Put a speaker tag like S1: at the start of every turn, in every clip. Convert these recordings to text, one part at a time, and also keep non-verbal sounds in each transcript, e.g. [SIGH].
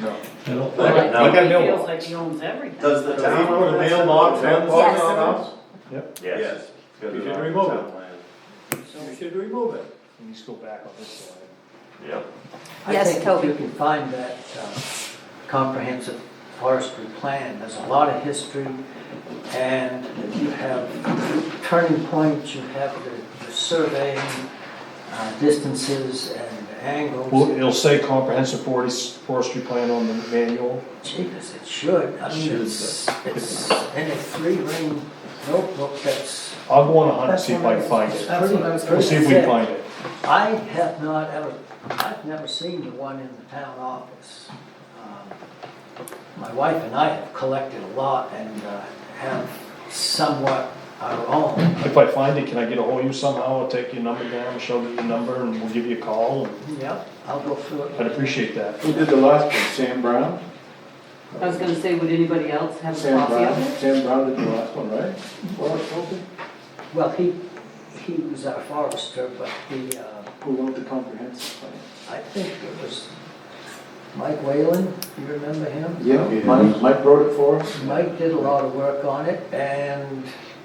S1: No.
S2: I don't
S1: Look
S2: think.
S1: at-
S3: Like,
S1: look at
S3: he feels
S1: mailbox.
S3: like he owns everything.
S4: Does the
S1: Does he
S4: town
S1: put
S4: own
S1: a
S4: that
S1: mailbox,
S4: separate
S1: mailbox
S4: town?
S5: Yes.
S1: on us?
S4: Yes.
S6: Yes.
S4: because
S1: We
S4: it's
S1: should
S4: on the
S1: remove
S4: town
S1: it.
S4: plan.
S1: We should remove it.
S2: Let me just go back on this slide.
S6: Yep.
S5: Yes,
S3: I think
S5: Toby.
S3: if you can find that uh, comprehensive forestry plan, there's a lot of history, and you have turning points, you have the- the surveying, uh, distances and
S2: Well,
S3: angles.
S2: it'll say comprehensive forest- forestry plan on the manual.
S3: Jesus, it should, I mean,
S2: Should,
S3: it's, it's in a three-ring notebook that's
S2: I'll go on a hunt, see if I can find it.
S3: That's what I was
S2: We'll
S3: pretty
S2: see if we can find it.
S3: I have not ever, I've never seen the one in the town office. Um, My wife and I have collected a lot and uh, have somewhat our own.
S2: If I find it, can I get a hold of you somehow? I'll take your number down, show you the number, and we'll give you a call. and
S3: Yep, I'll go through it.
S2: I'd appreciate that.
S1: Who did the last one, Sam Brown?
S7: I was gonna say, would anybody else have a
S1: Sam
S7: copy
S1: Brown,
S7: of it?
S1: Sam Brown did the last one, right? Well, okay.
S3: Well, he, he was our forester, but the, uh,
S1: Who wrote the comprehensive plan?
S3: I think it was Mike Whalen, you remember him?
S1: Yeah, Mike, Mike wrote it for us.
S3: Mike did a lot of work on it and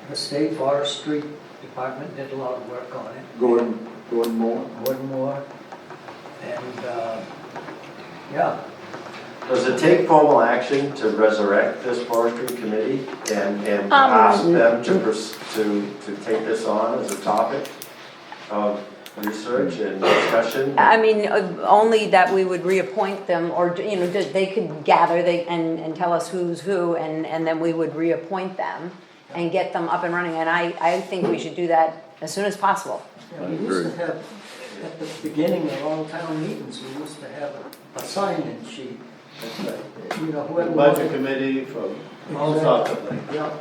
S3: the state forestry department did a lot of work on it.
S1: Gordon, Gordon Moore.
S3: One more, and, uh, yeah,
S4: Does it take formal action to resurrect this forestry committee and, and ask them to, pers- to, to take this on as a topic of research and discussion?
S5: I mean, uh, only that we would reappoint them, or, you know, that they could gather, they, and, and tell us who's who, and, and then we would reappoint them and get them up and running, and I, I think we should do that as soon as possible.
S3: yeah, we used to have, at the beginning of all town meetings, we used to have a- a sign-in sheet. uh, You know, whoever. wanted-
S4: committee for
S3: Exactly. uh, Yeah,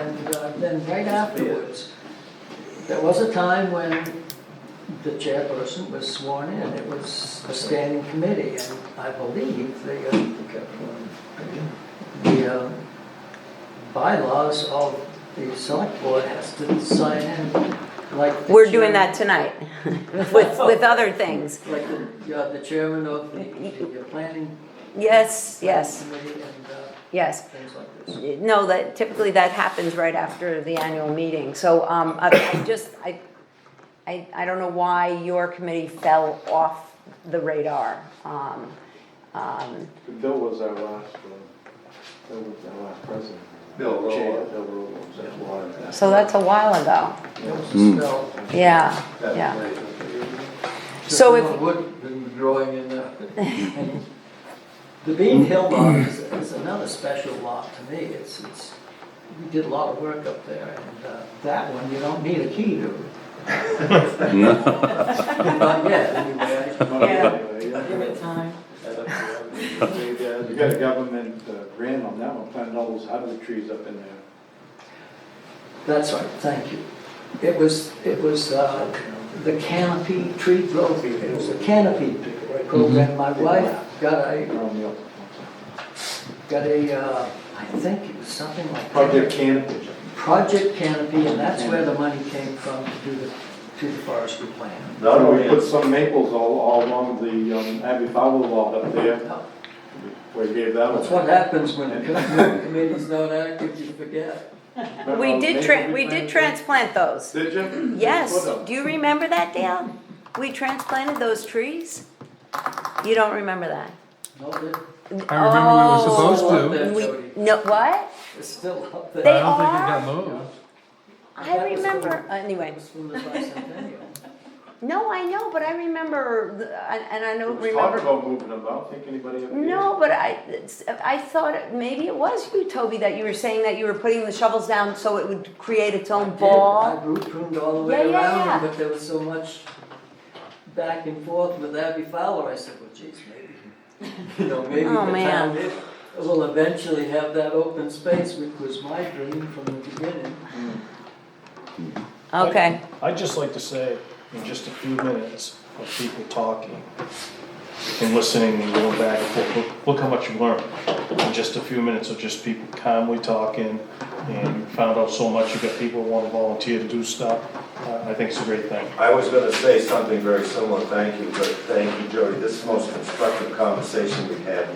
S3: and uh, then right afterwards, there was a time when the chairperson was sworn in, it was a standing committee, and I believe the, uh, the uh, bylaws of the select board has to sign in, like. the
S5: We're doing that
S3: chairman-
S5: tonight, with, with other things.
S3: Like the, yeah, the chairman of the, the planning.
S5: Yes, yes,
S3: Committee and uh,
S5: yes.
S3: things like this.
S5: No, that typically that happens right after the annual meeting, so, um, I, I just, I, I, I don't know why your committee fell off the radar, um, um,
S1: Bill was our last, one. Bill was our last president.
S4: Bill Rowe.
S1: Chair, Bill Rowe was our last.
S5: so that's a while ago,
S3: It was a spell.
S5: yeah, yeah. So
S3: So
S5: if-
S3: if. Wood been growing in there. [LAUGHS] The Bean Hill lot is, is another special lot to me, it's, it's, we did a lot of work up there, and, uh, that one, you don't need a key to. Not yet, anyway.
S7: Give it time.
S1: We got a government uh, grant on that one, planted all those hardwood trees up in there.
S3: That's right, thank you. It was, it was, uh, the canopy tree growth, it was a canopy program, my wife got a,
S1: around the-
S3: got a, uh, I think it was something like.
S1: Project Canopy.
S3: Project Canopy, and that's where the money came from to do the, to the forestry plan.
S4: Not
S1: So
S4: only
S1: we put
S4: is,
S1: some maples all, all along the um, Abbey Fowler lot up there,
S3: That's
S1: we gave that one.
S3: what happens when the com- committee's not active, you forget.
S1: Remember
S5: We
S1: those
S5: did
S1: maples
S5: tran, we did
S1: planted?
S5: transplant those,
S1: Did you?
S5: yes,
S1: Put 'em.
S5: do you remember that, Dale? We transplanted those trees? You don't remember that?
S3: No, it-
S8: I remember we were supposed
S5: Oh,
S8: to.
S5: We, no, what?
S3: it's still up
S5: They
S8: I
S3: there.
S8: don't think it
S5: are?
S8: got moved.
S5: I remember, anyway.
S3: It's from the bicentennial.
S5: [LAUGHS] No, I know, but I remember, the- and and I
S1: It
S5: don't
S1: was talked
S5: remember.
S1: about moving them, I don't think anybody ever did.
S5: No, but I, it's- I thought, it- maybe it was you, Toby, that you were saying that you were putting the shovels down so it would create its
S3: I
S5: own
S3: did.
S5: ball.
S3: I root pruned all the
S5: Yeah,
S3: way
S5: yeah,
S3: around,
S5: yeah.
S3: but there was so much back and forth with Abby Fowler, I said, well, geez, maybe, [LAUGHS] you know, maybe the
S5: Oh, man.
S3: town will eventually have that open space, which was my dream from the beginning.
S5: Okay,
S2: I'd just like to say, in just a few minutes of people talking and listening and going back and forth, look- look how much you learned. In just a few minutes of just people calmly talking and you found out so much, you got people who wanna volunteer to do stuff. I I think it's a great thing.
S4: I was gonna say something very similar, thank you, but thank you, Jody, this is the most constructive conversation we've had yet.